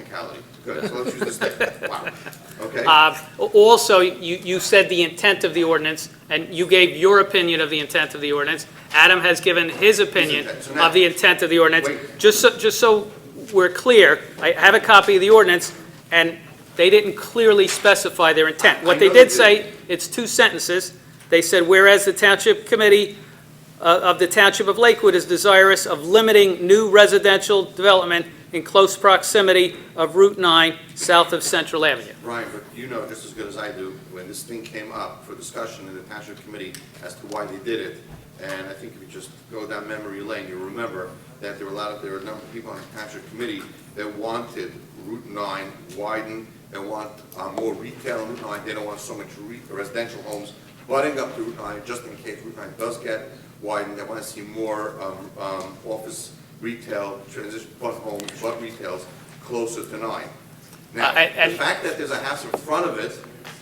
technicality. Good, so let's use this thing. Wow, okay. Uh, Also, you, you said the intent of the ordinance, and you gave your opinion of the intent of the ordinance. Adam has given his opinion intent. So now- of the intent of the ordinance. Wait. Just so, just so we're clear, I have a copy of the ordinance, and they didn't clearly specify their intent. I What they know they did say, it's two sentences. They said, whereas the Township Committee uh, of the Township of Lakewood is desirous of limiting new residential development in close proximity of Route 9, south of Central Avenue. Ryan, but you know just as good as I do, when this thing came up for discussion in the township committee as to why they did it, and I think if you just go down memory lane, you'll remember that there were a lot of, there were a number of people on the township committee that wanted Route 9 widened, and want uh, more retail on Route 9, they don't want so much re- residential homes butting up to Route 9, just in case Route 9 does get widened, they want to see more um, um, office, retail, transition, but homes, but retails closer to 9. Now, Uh, and- the and- fact that there's a house in front of it,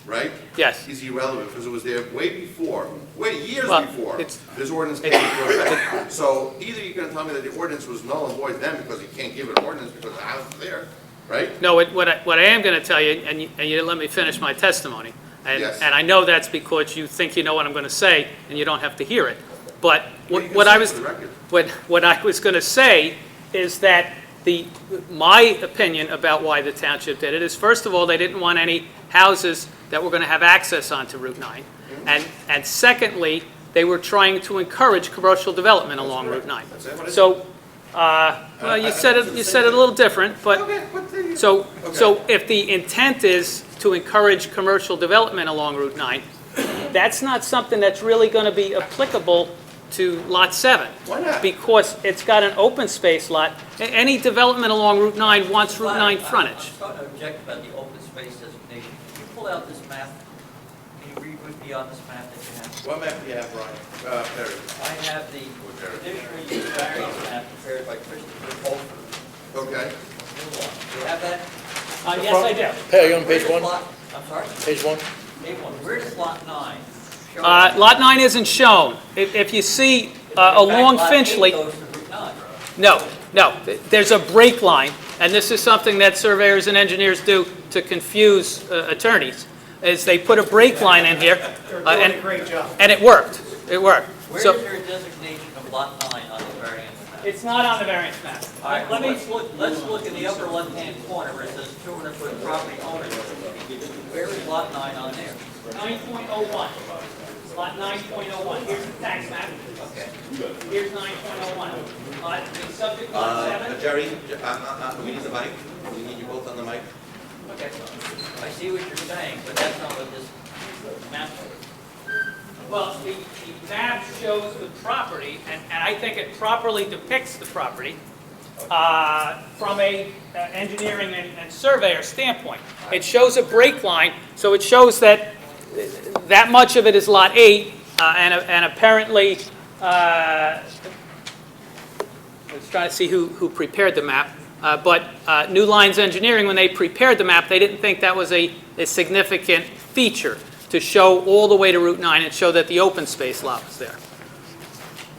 right? Yes. Is irrelevant, because it was there way before, way years Well, before, it's- this ordinance came into effect. So either you're gonna tell me that the ordinance was null and void then, because you can't give an ordinance because the house is there, right? No, what- what I, what I am going to tell you, and you, and you didn't let me finish my testimony, and, Yes. and I know that's because you think you know what I'm going to say, and you don't have to hear it, but Well, you what can what say I for was, the record. what, what I was going to say is that the, my opinion about why the township did it is, first of all, they didn't want any houses that were going to have access onto Route 9, Mm-hmm. and, and secondly, they were trying to encourage commercial development along Route 9. That's it, what is it? So, uh, well, you said it, you said it a little different, but Okay, what the- so, Okay. so if the intent is to encourage commercial development along Route 9, that's not something that's really going to be applicable to Lot 7. Why not? Because it's got an open space lot. A- Any development along Route 9 wants Route Well, 9 I- frontage. uh, I'm sorry to object about the open space designation. Can you pull out this map? Can you read with me on this map that you have? What map do you have, Ryan? Uh, Perry. I have the conditional use variance map prepared by Christopher Holford. Okay, You have that? Uh, Yes, I do. Hey, you on Where page does one? lot- I'm sorry, Page one? page one. Where does lot nine? show Uh, up? Lot 9 isn't shown. If if you see uh, In fact, along lot eight Finchley... goes to Route nine. No, no, th- there's a break line, and this is something that surveyors and engineers do to confuse uh, attorneys, is they put a break line in here. uh, and- And it worked, it worked. Where is So, your designation of lot nine on the variance map? it's not on the variance map. All right, Let me, let's look, let's look in the upper left-hand corner where it says 200 foot property owner. Where is lot nine on there? 9.01, lot 9.01, here's the tax map. Okay. Here's 9.01. Uh, the subject lot Uh, 7, Jerry, Je- uh, uh, uh, we need the mic. We need you both on the mic. Okay, I see what you're saying, but that's not what this map shows. well, the the map shows the property, and and I think it properly depicts the property. uh, from a uh, engineering and and surveyor standpoint. It shows a break line, so it shows that uh, that much of it is Lot 8, uh, and and apparently, uh, I was trying to see who who prepared the map, uh, but uh, New Lines Engineering, when they prepared the map, they didn't think that was a a significant feature to show all the way to Route 9 and show that the open space lot was there.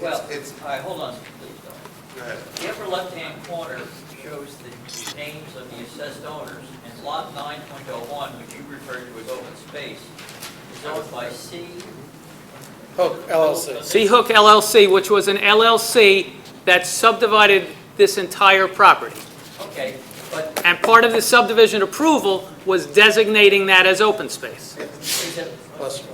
Well, it's- all right, hold on, please, though. go ahead. The upper left-hand corner shows the names of the assessed owners, and lot 9.01, which you referred to as open space, is owned by C. Hook LLC. Sea Hook LLC, which was an LLC that subdivided this entire property. Okay, but And part of the subdivision approval was designating that as open space. Is it- bless you.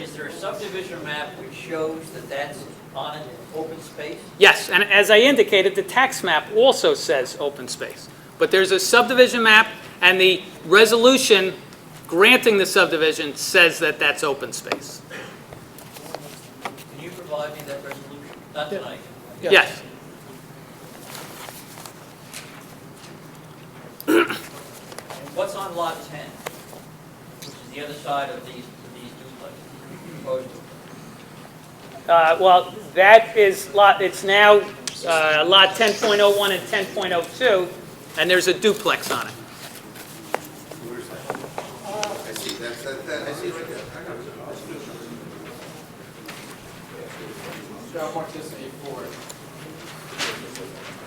Is there a subdivision map which shows that that's on an open space? Yes, and as I indicated, the tax map also says open space. But there's a subdivision map, and the resolution granting the subdivision says that that's open space. Can you provide me that resolution? Not tonight. Yeah. Yes. And What's on lot 10? Which is the other side of these, these duplexes proposed. Uh, Well, that is lot, it's now uh, lot 10.01 and 10.02, and there's a duplex on it. Where's that? I see, that's, that, that- I see it right there. I got it. Let's do it. Job mark this A four.